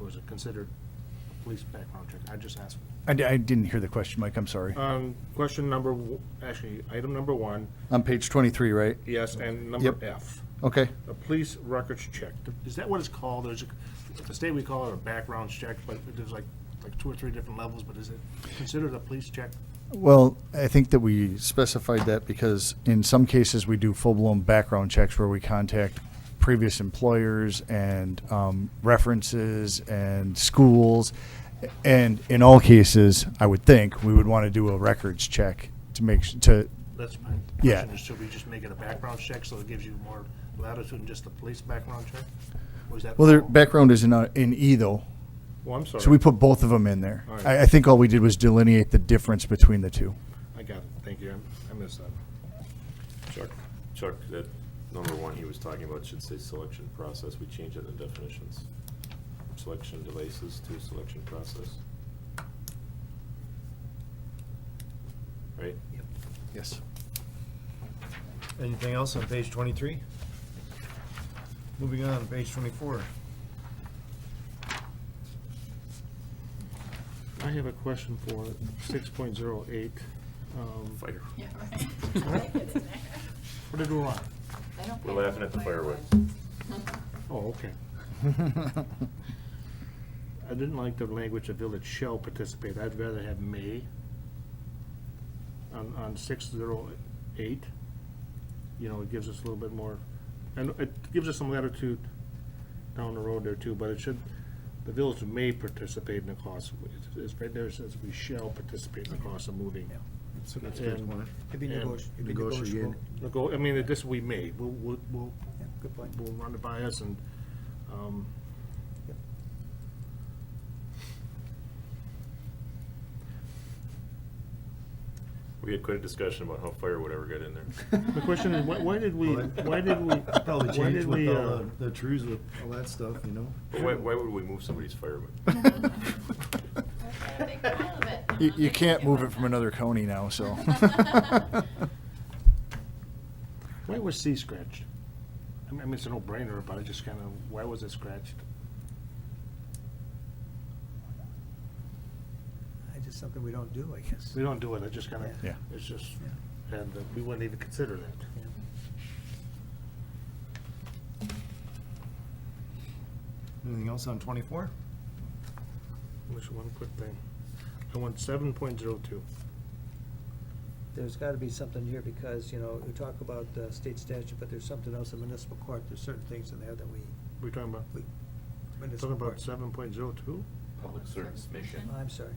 or is it considered a police background check? I just asked. I, di- I didn't hear the question, Mike, I'm sorry. Um, question number, w- actually, item number one, On page 23, right? yes, and number Yep. F, Okay, a police records check. Is that what it's called? There's, a- at the state, we call it a background check, but there's like, like two or three different levels, but is it considered a police check? Well, I think that we, we specified that because in some cases, we do full-blown background checks where we contact previous employers and um, references and schools. And in all cases, I would think, we would want to do a records check to make, s- to, That's my Yeah. question, is should we just make it a background check so it gives you more latitude than just the police background check? Or is that? well, their all? background is in, uh, in E though. Well, Oh, I'm sorry. So we put both of them in there. All right. I, I think all we did was delineate the difference between the two. I got it. Thank you. I- I missed that. Chuck, Chuck, that number one he was talking about should say selection process, we change it in the definitions. Selection devices to selection process. Right? Yes. Anything else on page twenty-three? Moving on, page twenty-four. I have a question for six point zero eight. Fire, Yeah, right. I think it's in there. What did we want? I don't We're think laughing at the fireworks. Oh, okay. I didn't like the language of village shall participate. I'd rather have may. On, on six zero eight, you know, it gives us a little bit more, and it gives us some latitude down the road there too, but it should, the village may participate in the cost. of- it's- It's right there, it says we shall participate in the cost of moving. So that's page one. It'd be And negoti- it'd be negotiate. negotiable. The go, I mean, this we may, we'll, we'll, we'll, Yeah, Good point. we'll run it by us and, um. Yep. we had quite a discussion about how firewood ever got in there. The question is, why, why did we, why did we, Probably why changed did with we, all uh, the- the trees with all that stuff, you know? But why, why would we move somebody's firewood? Okay, big pile of it. You, I'm you not can't gonna move do it from another county now, so. why was C scratched? I mean, I mean, it's a no-brainer, but I just kinda, why was it scratched? It's just something we don't do, I guess. We don't do it, I just kinda, Yeah. it's just, and uh, we wouldn't even consider that. Anything else on twenty-four? Just one quick thing. I want seven point zero two. There's got to be something here because, you know, we talk about uh, state statute, but there's something else in municipal court. There's certain things in there that we, We talking about, talking municipal about court. seven point zero two? Public service mission. I'm sorry.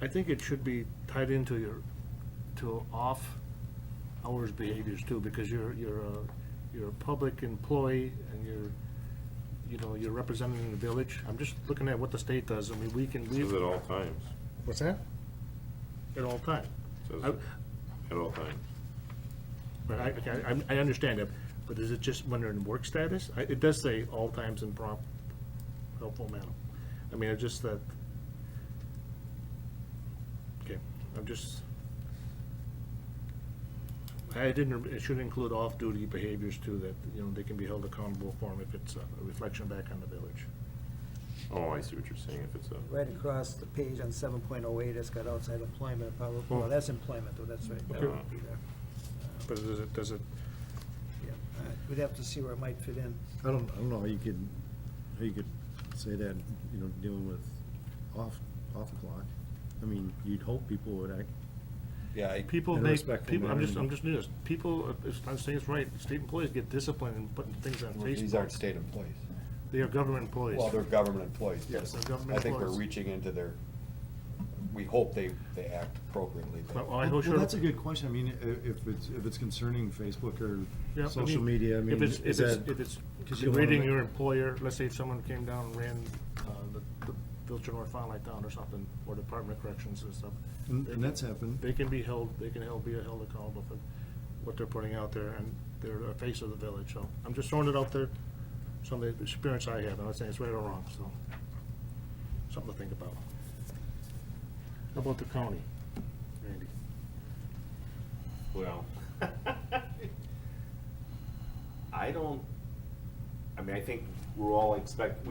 I think it should be tied into your, to off-hours behaviors too, because you're, you're a, you're a public employee and you're, you know, you're representing the village. I'm just looking at what the state does. I mean, we can, we. Says at all times, What's that? At all time. says I- at all times. But I, okay, I, I understand it, but is it just when they're in work status? I, it does say all times in prompt, helpful manner. I mean, it's just that. Okay, I'm just. I didn't, it should include off-duty behaviors too, that, you know, they can be held accountable for 'em if it's a reflection back on the village. Oh, I see what you're saying, if it's a, Right across the page on seven point oh eight, it's got outside employment, probably, Oh. well, that's employment, though, that's right. That Okay. would be there. But does it, does it, Yeah. Uh, We'd have to see where it might fit in. I don't, I don't know how you could, how you could say that, you know, dealing with off, off clock. I mean, you'd hope people would act, Yeah, I, people In a make, respectful people, I'm manner. just, I'm just, news. people, uh, it's- I'm saying it's right, state employees get disciplined in putting things on Facebook. these aren't state employees. They are government employees. Well, they're government employees. but Yes, they're government I think we're employees. reaching into their, we hope they, they act appropriately. but- Well, Oh, I Well, hope well, sure. that's a good question. I mean, i- if it's, if it's concerning Facebook Yeah, I or mean, social media, I mean, If it's, is if it's, that? if it's 'cause you wanna rating make- your employer, let's say if someone came down and ran, uh, the, the Filter North Fond du Lac down or something, or Department of Corrections and stuff. Mm, And- they and can- that's happened. They can be held, they can held, be held accountable for what they're putting out there, and they're the face of the village, so I'm just throwing it out there. Some of the experience I have, I'm not saying it's right or wrong, so, something to think about. How about the county, Randy? well. I don't, I mean, I think we're all expect,